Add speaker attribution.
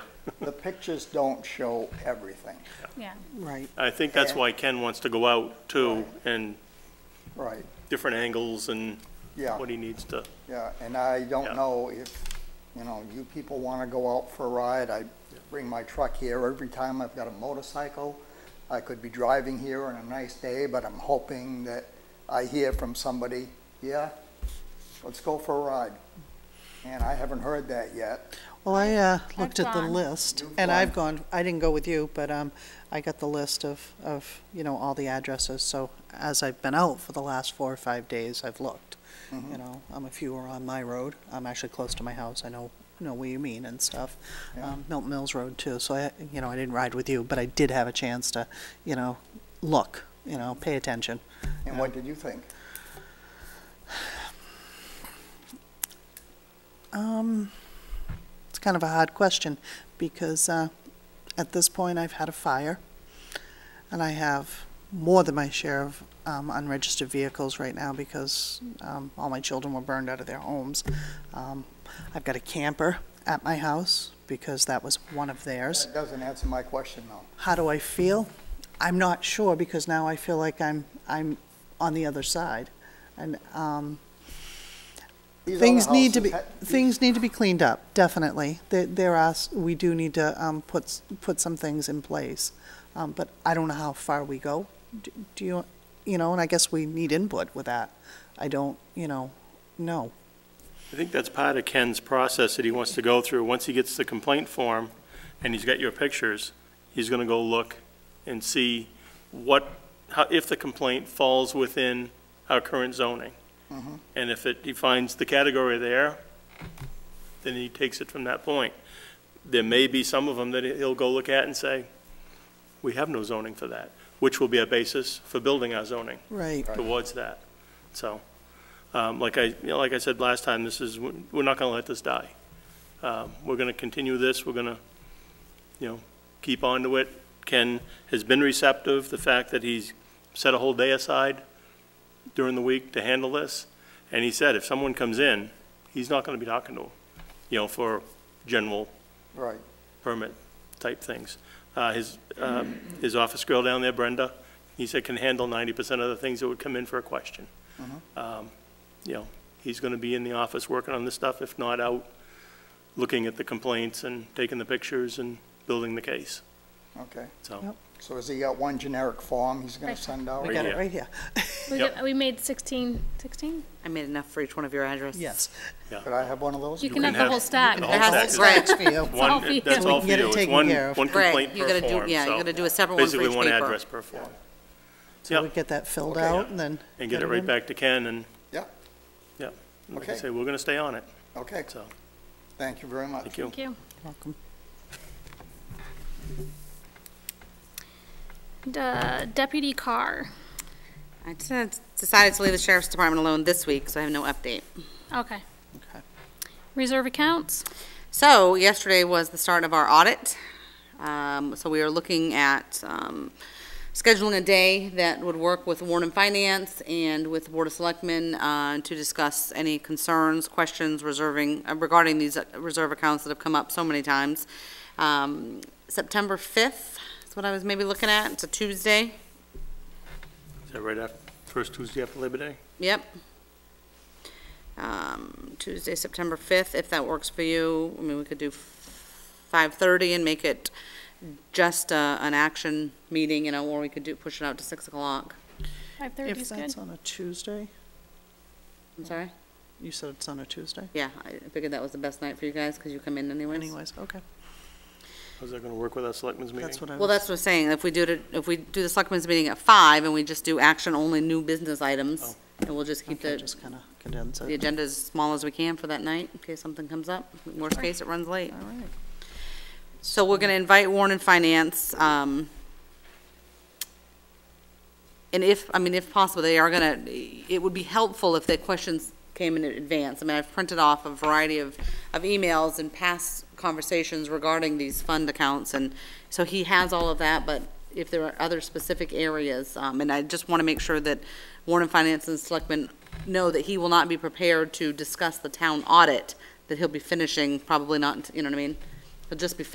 Speaker 1: the pictures don't show everything.
Speaker 2: yeah.
Speaker 3: Right,
Speaker 4: I think that's why Ken wants to go out too, and
Speaker 1: Right,
Speaker 4: different angles and
Speaker 1: yeah,
Speaker 4: what he needs to,
Speaker 1: yeah, and I
Speaker 4: Yeah.
Speaker 1: don't know if, you know, you people want to go out for a ride, I bring my truck here every time I've got a motorcycle. I could be driving here on a nice day, but I'm hoping that I hear from somebody, yeah, let's go for a ride. And I haven't heard that yet.
Speaker 3: well, I, uh, looked
Speaker 2: I've
Speaker 3: at the
Speaker 2: gone.
Speaker 3: list,
Speaker 1: You've
Speaker 3: and I've gone, I didn't go with you, but, um, I got the list of, of, you know, all the addresses, so as I've been out for the last four or five days, I've looked.
Speaker 1: Mm-hmm.
Speaker 3: You know, um, if you were on my road, I'm actually close to my house, I know, know what you mean and stuff.
Speaker 1: Yeah.
Speaker 3: Um, Milton Mills Road too, so I, you know, I didn't ride with you, but I did have a chance to, you know, look, you know, pay attention.
Speaker 1: And what did you think?
Speaker 3: Um, it's kind of a hard question because uh, at this point I've had a fire and I have more than my share of um, unregistered vehicles right now because um, all my children were burned out of their homes. Um, I've got a camper at my house because that was one of theirs.
Speaker 1: That doesn't answer my question, though.
Speaker 3: How do I feel? I'm not sure because now I feel like I'm I'm on the other side and um,
Speaker 1: These other
Speaker 3: Things need to be,
Speaker 1: houses ha-
Speaker 3: things need to be cleaned up, definitely. There, there are, s- we do need to, um, put, s- put some things in place. Um, but I don't know how far we go. D- Do you, you know, and I guess we need input with that. I don't, you know, know.
Speaker 4: I think that's part of Ken's process that he wants to go through. Once he gets the complaint form and he's got your pictures, he's gonna go look and see what, how, if the complaint falls within our current zoning. And if it, he finds the category there, then he takes it from that point. There may be some of them that he'll go look at and say, we have no zoning for that, which will be a basis for building our zoning
Speaker 3: Right.
Speaker 4: towards that. So, um, like I, you know, like I said last time, this is, we're not gonna let this die. Um, we're gonna continue this, we're gonna, you know, keep on to it. Ken has been receptive, the fact that he's set a whole day aside during the week to handle this. And he said, if someone comes in, he's not gonna be talking to them, you know, for general
Speaker 1: Right,
Speaker 4: permit type things. Uh, His, um, his office girl down there, Brenda, he said can handle ninety percent of the things that would come in for a question.
Speaker 3: Mm-hmm.
Speaker 4: Um, You know, he's gonna be in the office working on this stuff, if not out looking at the complaints and taking the pictures and building the case,
Speaker 1: okay.
Speaker 4: so.
Speaker 3: Yep.
Speaker 1: So has he got one generic form he's gonna
Speaker 2: Right.
Speaker 1: send out?
Speaker 3: We got it
Speaker 4: here.
Speaker 3: right here.
Speaker 2: We,
Speaker 4: Yep.
Speaker 2: got- we made sixteen, sixteen?
Speaker 5: I made enough for each one of your addresses.
Speaker 3: Yes.
Speaker 1: Could I have one of those?
Speaker 2: You can have
Speaker 4: have-
Speaker 2: the whole stack.
Speaker 4: the
Speaker 5: It
Speaker 4: whole
Speaker 5: has to-
Speaker 4: stack
Speaker 5: right.
Speaker 3: That's for you.
Speaker 2: all
Speaker 4: One,
Speaker 2: for you.
Speaker 4: that's
Speaker 2: So we
Speaker 4: all
Speaker 3: can
Speaker 4: for
Speaker 3: get it
Speaker 4: you, it's
Speaker 3: taken
Speaker 4: one,
Speaker 3: care of.
Speaker 4: one
Speaker 5: Right.
Speaker 4: complaint
Speaker 5: You
Speaker 4: per
Speaker 5: gotta do-
Speaker 4: form,
Speaker 5: yeah, you
Speaker 4: so
Speaker 5: gotta do a separate one for
Speaker 4: Basically,
Speaker 5: each
Speaker 4: one
Speaker 5: paper.
Speaker 4: address per form,
Speaker 3: So we
Speaker 4: Yep.
Speaker 3: get that filled
Speaker 1: Okay.
Speaker 3: out and then.
Speaker 4: and get it right
Speaker 3: in.
Speaker 4: back to Ken, and,
Speaker 1: Yeah,
Speaker 4: yeah. Like I
Speaker 1: Okay.
Speaker 4: say, we're gonna stay on it,
Speaker 1: okay,
Speaker 4: so,
Speaker 1: thank you very much.
Speaker 4: thank you.
Speaker 2: Thank you.
Speaker 3: Welcome.
Speaker 2: D- uh, Deputy Carr.
Speaker 5: I just decided to leave the sheriff's department alone this week, so I have no update.
Speaker 2: Okay.
Speaker 3: Okay.
Speaker 2: Reserve accounts.
Speaker 5: So yesterday was the start of our audit. Um, So we are looking at um, scheduling a day that would work with Warren and Finance and with the Board of Selectmen uh, to discuss any concerns, questions reserving, uh, regarding these uh, reserve accounts that have come up so many times. Um, September 5th is what I was maybe looking at. It's a Tuesday.
Speaker 4: Is that right after, first Tuesday after Labor Day?
Speaker 5: Yep. Um, Tuesday, September 5th, if that works for you. I mean, we could do 5:30 and make it just uh, an action meeting, you know, or we could do, push it out to 6 o'clock.
Speaker 2: Five thirty
Speaker 3: If
Speaker 2: is good.
Speaker 3: that's on a Tuesday,
Speaker 5: I'm sorry?
Speaker 3: you said it's on a Tuesday?
Speaker 5: Yeah, I figured that was the best night for you guys, because you come in anyways.
Speaker 3: Anyways, okay.
Speaker 4: How's that gonna work with our selectmen's meeting?
Speaker 3: That's what I
Speaker 5: Well,
Speaker 3: was,
Speaker 5: that's what I'm saying, if we do it, if we do the selectmen's meeting at 5 and we just do action-only new business items, and we'll Oh. just keep
Speaker 3: okay,
Speaker 5: the,
Speaker 3: just kind of condense
Speaker 5: the
Speaker 3: it.
Speaker 5: agenda as small as we can for that night, in case something comes up. Worst case, it runs late.
Speaker 3: All right.
Speaker 5: So we're gonna invite Warren and Finance, um, and if, I mean, if possible, they are gonna, it would be helpful if their questions came in advance. I mean, I've printed off a variety of, of emails and past conversations regarding these fund accounts, and so he has all of that, but if there are other specific areas, um, and I just wanna make sure that Warren and Finance and Selectmen know that he will not be prepared to discuss the town audit, that he'll be finishing, probably not, you know what I mean? He'll just be